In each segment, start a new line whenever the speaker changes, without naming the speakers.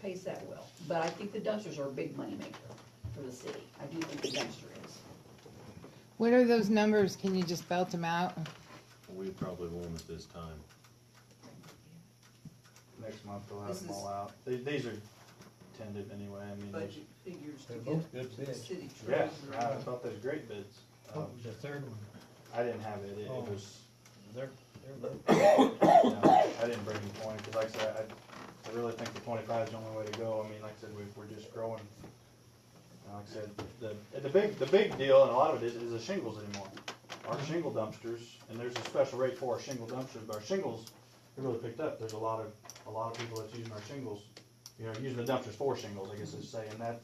pays that well, but I think the dumpsters are a big moneymaker for the city, I do think the dumpster is.
What are those numbers? Can you just belt them out?
We probably won't at this time.
Next month they'll have
This
them all
is-
out. These, these are tended anyway, I mean, there's-
budget figures to
They're
get
both good
the
bids.
city
yeah, I
treasurer.
thought there's great bids.
Oh,
Um,
the third one,
I didn't have it, it it
Oh.
was,
they're, they're good.
you know, I didn't bring the twenty, cause like I said, I, I really think the twenty-five is the only way to go. I mean, like I said, we, we're just growing. And Like I said, the, the big, the big deal, and a lot of it is, is the shingles anymore. Our shingle dumpsters, and there's a special rate for our shingle dumpsters, but our shingles, they really picked up. There's a lot of, a lot of people that's using our shingles, you know, using the dumpsters for shingles, I guess it's saying, that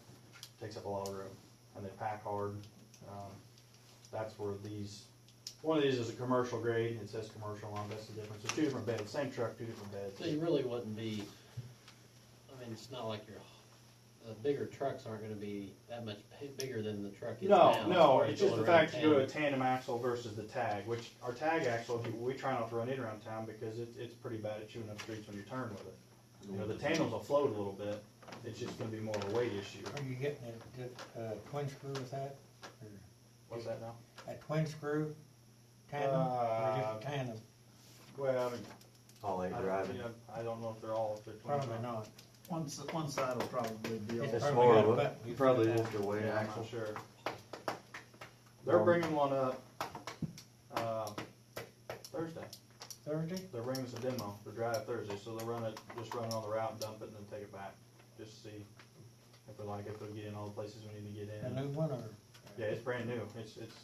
takes up a lot of room. And they pack hard. Um, that's where these, one of these is a commercial grade, it says commercial on, it, that's the difference. So two different beds, same truck, two different
So you
beds.
really wouldn't be, I mean, it's not like your, the bigger trucks aren't gonna be that much bi- bigger than the truck is
No,
now. as
no,
far as
it's just the
going
fact
around
you go to a
town.
tandem axle versus the tag, which our tag axle, you- we try not to run it around town because it, it's pretty bad at chewing up streets when you turn with it. You know, the
Mm-hmm.
tandems will float a little bit, it's just gonna be more of a weight issue.
Are you getting a, a twin screw with that? Or
What's that now?
A twin screw
Uh,
tandem, or just a tandem?
Well, I mean,
All eight
I don't, you know, I don't know if they're all, if they're twins
Probably
or
not.
One, s- one side will probably be
It's
all
It's
probably
more
got a
of a,
button.
you probably lift your weight
Yeah, I'm
axle.
not sure. They're
Um,
bringing one up, um, Thursday.
Thursday?
They're bringing us a demo for drive Thursday, so they'll run it, just run it on the route, dump it, and then take it back. Just see if we like, it, if we get in all the places we need to get
A
in.
new one or?
Yeah, it's brand new. It's, it's,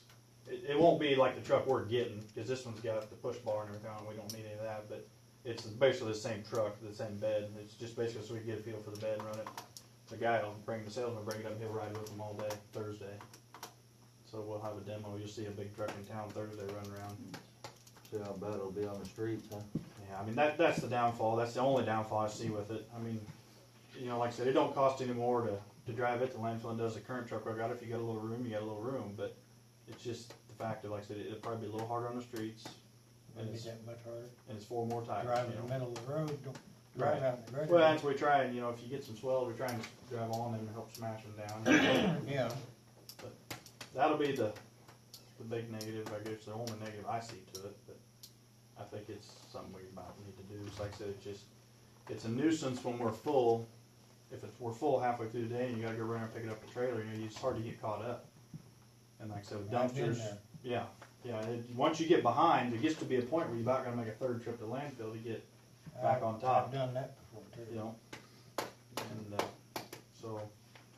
it, it won't be like the truck we're getting, cause this one's got the push bar and everything, and we don't need any of that, but it's basically the same truck, the same bed. It's just basically so we can get a feel for the bed and run it. The guy will bring the salesman, bring it up, he'll ride with him all day Thursday. So we'll have a demo. You'll see a big truck in town Thursday running around.
See how bad it'll be on the streets, huh?
Yeah, I mean that that's the downfall. That's the only downfall I see with it. I mean, you know, like I said, it don't cost any more to, to drive it to landfill than does the current truck I got. If you got a little room, you got a little room, but it's just the fact of like I said, it'll probably be a little harder on the streets, and
Maybe
it's,
that much harder.
and it's four more tires.
Drive
you
in
know.
the middle of the road, don't drive
Right.
out in the
Well,
road.
that's what we try, and you know, if you get some swells, we try and drive on them and help smash them down.
Yeah,
That'll be the the big negative, I guess, the only negative I see to it, but I think it's something we might need to do. It's like I said, it's just, it's a nuisance when we're full. If it's, we're full halfway through the day and you gotta go run and pick it up a trailer, you know, it's hard to get caught up. And like I said, with
I've been
dumpsters,
there.
yeah, yeah, it, once you get behind, it gets to be a point where you're about gonna make a third trip to landfill to get Back
I've-
on top.
I've done that before too.
you know. And uh, so,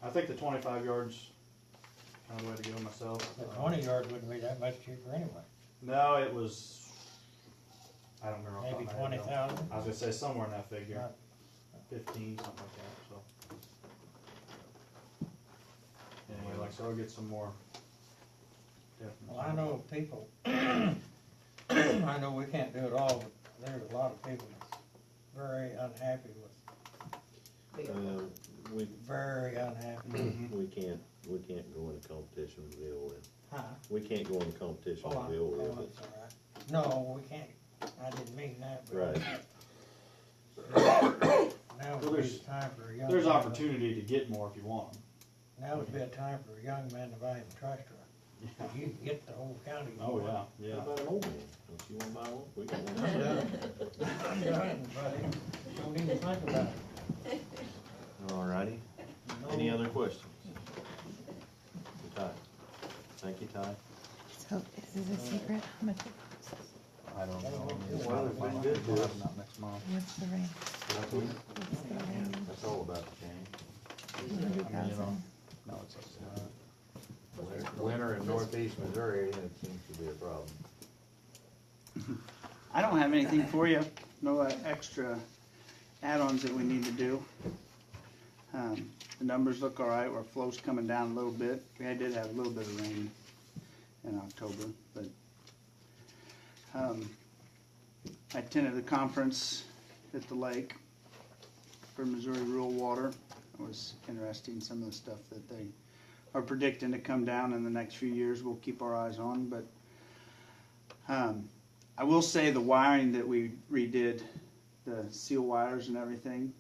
I think the 25 yards kind of the way to go myself.
The
Uh,
twenty yard wouldn't be that much cheaper anyway,
No, it was. I don't remember. off the
maybe
top of my
twenty
head, though.
thousand.
I was gonna say somewhere in that figure, 15, something like that. So. Anyway, like so, I'll get some more. definite-
Well, I know people, I know we can't do it all, but there's a lot of people that's very unhappy with,
Big-
Uh, we,
very unhappy.
we can't, we can't go into competition with the old,
Huh?
we can't go into competition
Oh, I-
with the
oh,
old,
it's all right. No, we can't, I didn't mean that, but.
right?
Now
Well,
would be
there's-
the time for a young.
There's
man-
opportunity to get more if you want them.
Now would be a time for a young man to buy him a tractor. You can get the whole county.
Oh yeah,
How
yeah.
about an old one? Don't you wanna buy one? We can.
Done, buddy. Don't even think about it.
Alrighty, any other questions? Ty, thank you, Ty.
So is it a secret? How much,
I don't know.
The
weather's been good to us.
Not next month.
what's the range? What's the range?
That's all about the change.
Hundred thousand?
No, it's. uh,
Winter- Winter in northeast Missouri, it seems to be a problem.
I don't have anything for you, no uh, extra add-ons that we need to do. Um, The numbers look all right, our flow's coming down a little bit. We had- did have a little bit of rain in October, but um, I attended the conference at the lake for Missouri Rural Water. It was interesting, some of the stuff that they are predicting to come down in the next few years. We'll keep our eyes on, but um, I will say the wiring that we redid, the seal wires and everything,